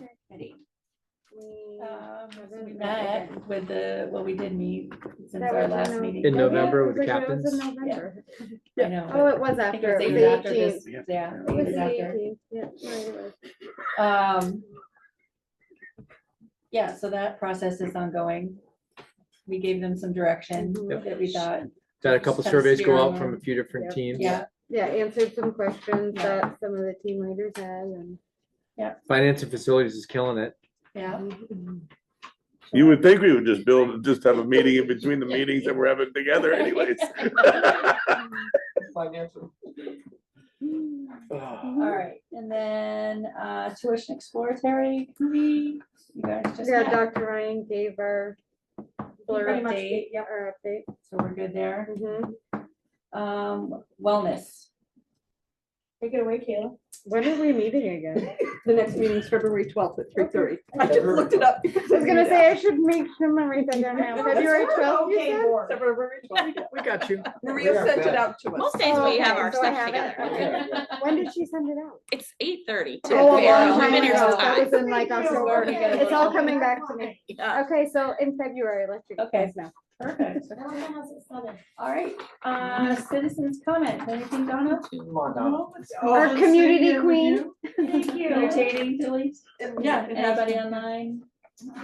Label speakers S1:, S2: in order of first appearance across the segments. S1: Um,
S2: Uh,
S1: met with the, well, we did meet since
S2: That
S1: our
S2: was
S1: last
S2: in
S1: meeting.
S3: In
S2: Yeah,
S3: November
S2: it
S3: with the
S2: was like when it was
S3: captains.
S2: in November.
S1: I know.
S2: Oh, it was
S1: I think it
S2: after,
S1: was
S2: it was
S1: the year after this-
S2: the eighteenth.
S1: Yeah. I
S2: It
S1: think it
S2: was
S1: was
S2: the
S1: after.
S2: 18th, yeah, right, it was.
S1: Um, yeah, so that process is ongoing. We gave them some direction
S2: Mhm.
S1: that we thought,
S3: Had a couple
S1: Just kinda
S3: surveys
S1: steer
S3: go out
S1: them.
S3: from a few different
S2: Yep.
S3: teams.
S1: yeah,
S2: Yeah, answered some questions
S1: Yeah.
S2: that some of the team leaders had and.
S3: Finance and facilities is killing it.
S1: yeah.
S4: You would think we would just build, just have a meeting in between the meetings that we're having together anyways.
S1: All right, and then, uh, tuition exploratory committee, you guys just
S2: Yeah,
S1: met,
S2: Dr. Ryan gave our. blur
S1: Pretty much
S2: update,
S1: gave- yep.
S2: Our update.
S1: so we're good there.
S2: Mhm.
S1: Um, wellness. Take it away, Kayla.
S2: When are we meeting again?
S5: The next meeting is February twelfth at three thirty. I just looked it up. because
S2: I was gonna
S5: knew
S2: say,
S5: that.
S2: I should make sure memory that down now.
S5: No, that's
S2: February
S5: fine.
S2: twelfth, you
S5: Okay,
S2: said?
S5: board. February 12th.
S3: We got you.
S5: Maria sent it out to us.
S6: Most days we have
S2: Okay,
S6: our
S2: so I
S6: stuff
S2: have it.
S6: together.
S2: When did she send it out?
S6: It's eight thirty.
S5: Oh, a long
S6: We've been here some
S5: ago.
S2: That
S6: time.
S2: was in like October.
S1: Yeah.
S2: It's all coming back to me.
S6: Yeah.
S2: Okay, so in February, let's do
S1: Okay.
S2: this now.
S1: Perfect. All right, uh, citizens comment, anything, Donna?
S2: Our community queen.
S7: Thank you.
S1: Entertaining, delete?
S7: Yeah. it has
S1: Anybody
S7: to-
S1: online?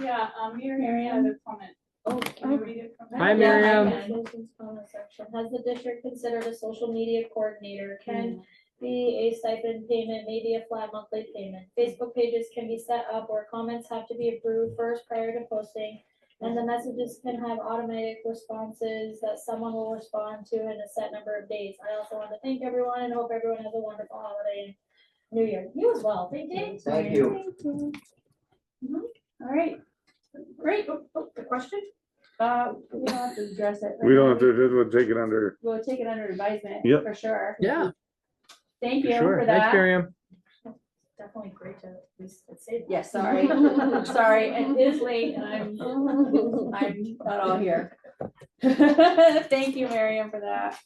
S7: Yeah, um, here,
S1: Miriam?
S7: Miriam had a comment.
S8: Oh,
S7: Can you read it from
S3: Hi,
S7: there?
S8: Yeah, I
S3: Miriam.
S8: got Jason's comment section. Has the district considered a social media coordinator?
S7: Mm.
S8: Can be a stipend payment, maybe a flat monthly payment. Facebook pages can be set up where comments have to be approved first prior to posting. And the messages can have automatic responses that someone will respond to in a set number of days. I also want to thank everyone and hope everyone has a wonderful holiday and New Year. You as well. Thank you.
S9: Thank you.
S1: All right,
S7: Great, oh, oh, the question?
S1: uh, we don't have to address it.
S4: We don't have to, we'll take it under,
S1: We'll take it under advisement,
S4: Yep.
S1: for sure.
S3: Yeah,
S1: Thank you
S3: sure.
S1: for
S3: Thanks,
S1: that.
S3: Miriam.
S7: Definitely great to, at least, let's say.
S1: Yes, sorry, sorry, it is late and I'm, I'm not all here. Thank you, Miriam, for that.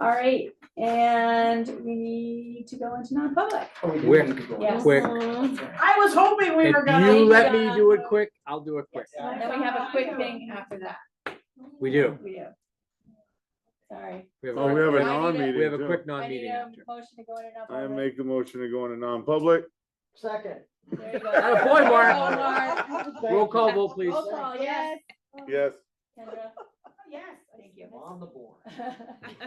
S1: All right, and we need to go into non-public.
S3: Wick,
S1: Yes.
S3: quick.
S7: I was hoping we
S3: If
S7: were gonna.
S3: you let me do it quick, I'll do it quick.
S1: And then we have a quick thing after that.
S3: We do.
S1: We do. Sorry.
S3: We have
S4: oh, we have a
S1: I need a-
S4: non-meeting
S3: We have a quick
S4: too.
S1: I
S3: non-meeting
S1: need a
S3: after.
S1: motion to go into
S4: I
S1: non-public.
S4: make the motion to go into non-public.
S9: Second.
S1: There you go.
S3: Atta boy, Mark.
S1: Go, Mark.
S3: Roll call vote, please.
S1: Roll
S2: Oh,
S1: call, yes.
S4: Yes.
S1: Kendra?
S7: Yes.
S1: Thank you.
S9: On the board.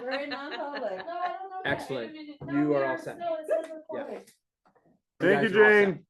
S1: We're in non-public.
S8: No, I don't know.
S3: Excellent. You are all set.
S8: No, it says recorded.
S4: Thank you,
S3: guys are all set.
S4: Jane.